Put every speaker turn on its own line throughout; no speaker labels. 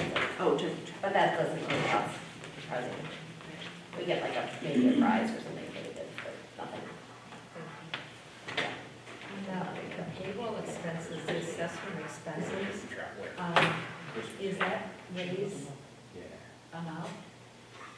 to, but that doesn't really cost the president. We get like a, maybe a prize or something, but it is, but nothing.
Now, the payroll expenses, the assessment expenses, um, is that Ray's amount?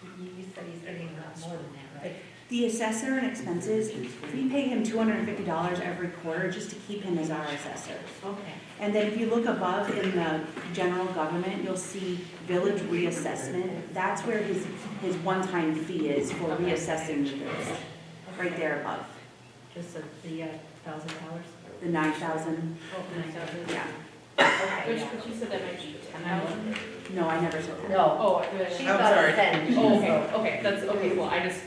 You you said he's getting a lot more than that, right?
The assessor and expenses, we pay him two hundred and fifty dollars every quarter just to keep him as our assessor.
Okay.
And then if you look above in the general government, you'll see village reassessment. That's where his, his one-time fee is for reassessing the village, right there above,
Just the- the uh, thousand dollars?
the nine thousand,
Oh,
yeah.
Okay,
Which,
yeah.
but you said that might be ten thousand?
No, I never said that.
No,
Oh,
she's
really?
I'm
about
sorry.
to send.
Oh, okay, okay, that's, okay, well, I just,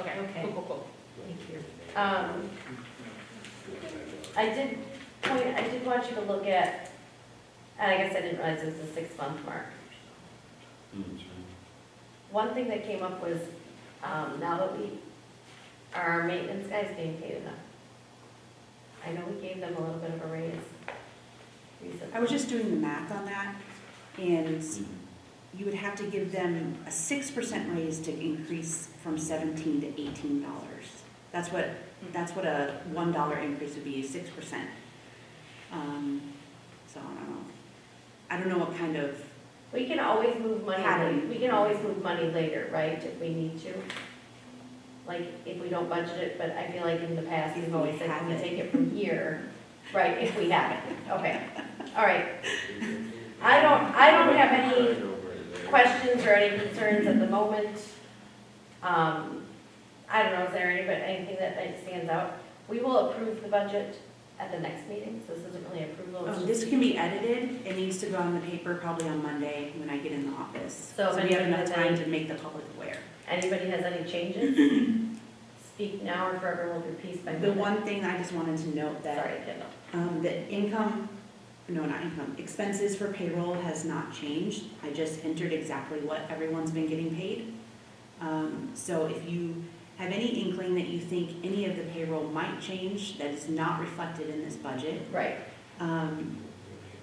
okay,
Okay.
cool, cool, cool.
thank you.
Um, I did, point. I did want you to look at, and I guess I didn't realize it was a six-month mark. One thing that came up was, um, now that we, are our maintenance guys being paid enough? I know we gave them a little bit of a raise recently.
I was just doing the math on that, and you would have to give them a six percent raise to increase from seventeen to eighteen dollars. That's what, that's what a one dollar increase would be, six percent. Um, so I don't know. I don't know what kind of,
We can always move money,
How do
la- we can always move money later, right, if we need to? Like, if we don't budget it, but I feel like in the past,
If
we've
we
always said,
have
we
it.
take it from here, right, if we have it, okay, all right. I don't, I don't have any questions or any concerns at the moment. Um, I don't know, is there any, but anything that like, stands out? We will approve the budget at the next meeting, so this isn't really approval. it's
um,
just-
this can be edited, it needs to go on the paper probably on Monday when I get in the office.
So
So
if
we have enough
anybody-
time to make the public aware.
Anybody has any changes? Speak now or forever hold your peace by.
The
Monday.
one thing I just wanted to note that
Sorry, Kendall.
Um, the income, no, not income, expenses for payroll has not changed. I just entered exactly what everyone's been getting paid. Um, so if you have any inkling that you think any of the payroll might change that is not reflected in this budget,
Right,
um,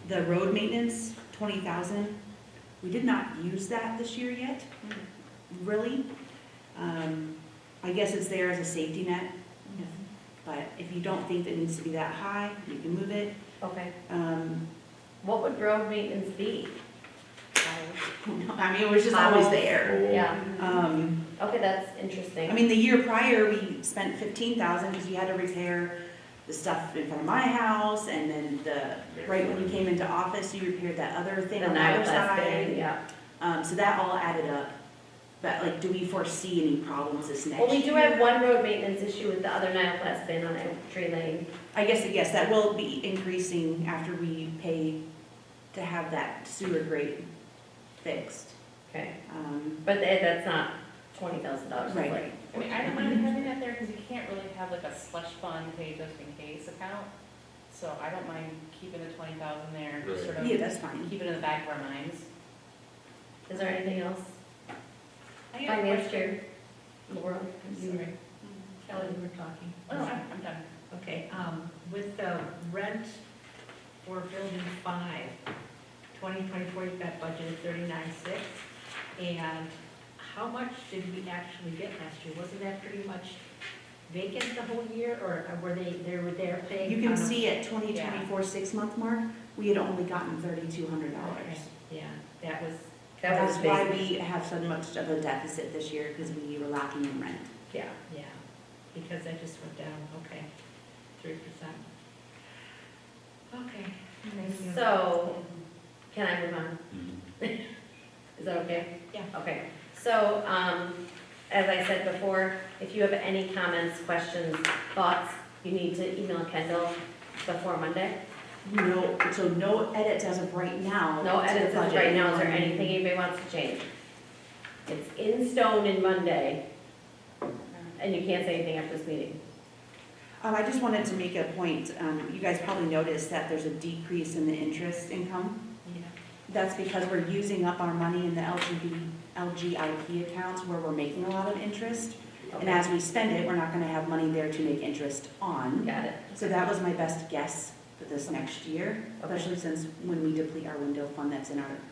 the road maintenance, twenty thousand, we did not use that this year yet, really. Um, I guess it's there as a safety net, but if you don't think that it needs to be that high, you can move it.
okay.
Um,
What would road maintenance be?
I mean, it was just always there.
Yeah,
Um,
okay, that's interesting.
I mean, the year prior, we spent fifteen thousand because we had to repair the stuff in front of my house and then the, right when you came into office, you repaired that other thing on the other
thing,
side.
Yeah.
Um, so that all added up. But like, do we foresee any problems this next year?
Well, we do have one road maintenance issue with the other Nioplast bin on Oak Tree Lane.
I guess, yes, that will be increasing after we pay to have that sewer grate fixed.
Okay,
Um,
but tha- that's not twenty thousand dollars,
Right.
like,
I mean, I don't mind having that there, because you can't really have like a slush fund pay just in case account. So I don't mind keeping the twenty thousand there, just sort of
yeah, that's fine.
keep it in the back of our minds.
is there anything else?
I got a
Finance
question.
chair, Laura,
You
Mm-hmm.
were- Kelly, you were talking.
Oh, no, I'm, I'm done.
Okay, um, with the rent for building five, twenty twenty-four, you've got budgeted thirty-nine six. And how much did we actually get last year? Wasn't that pretty much vacant the whole year, or uh, were they, they were there paying?
You can
on a-
see at twenty twenty-four, six-month mark, we had only gotten thirty-two hundred dollars.
Okay, Yeah, that was,
that was
That's why
big,
we have so much of a deficit this year, because we were lacking in rent.
yeah.
yeah, because that just went down, okay, three percent. Okay. amazing.
So- Can I move on? Is that okay?
Yeah.
Okay, so, um, as I said before, if you have any comments, questions, thoughts, you need to email Kendall before Monday.
No, so no edits as of right now.
No
to the
edits as of
budget.
right now, is there anything anybody wants to change? It's in stone in Monday, and you can't say anything after this meeting.
Um, I just wanted to make a point, um, you guys probably noticed that there's a decrease in the interest income.
Yeah.
That's because we're using up our money in the LGB, LGIP accounts where we're making a lot of interest. And
Okay,
as we spend it, we're not gonna have money there to make interest on.
got it.
So that was my best guess for this next year, especially since when we deplete our window fund that's in our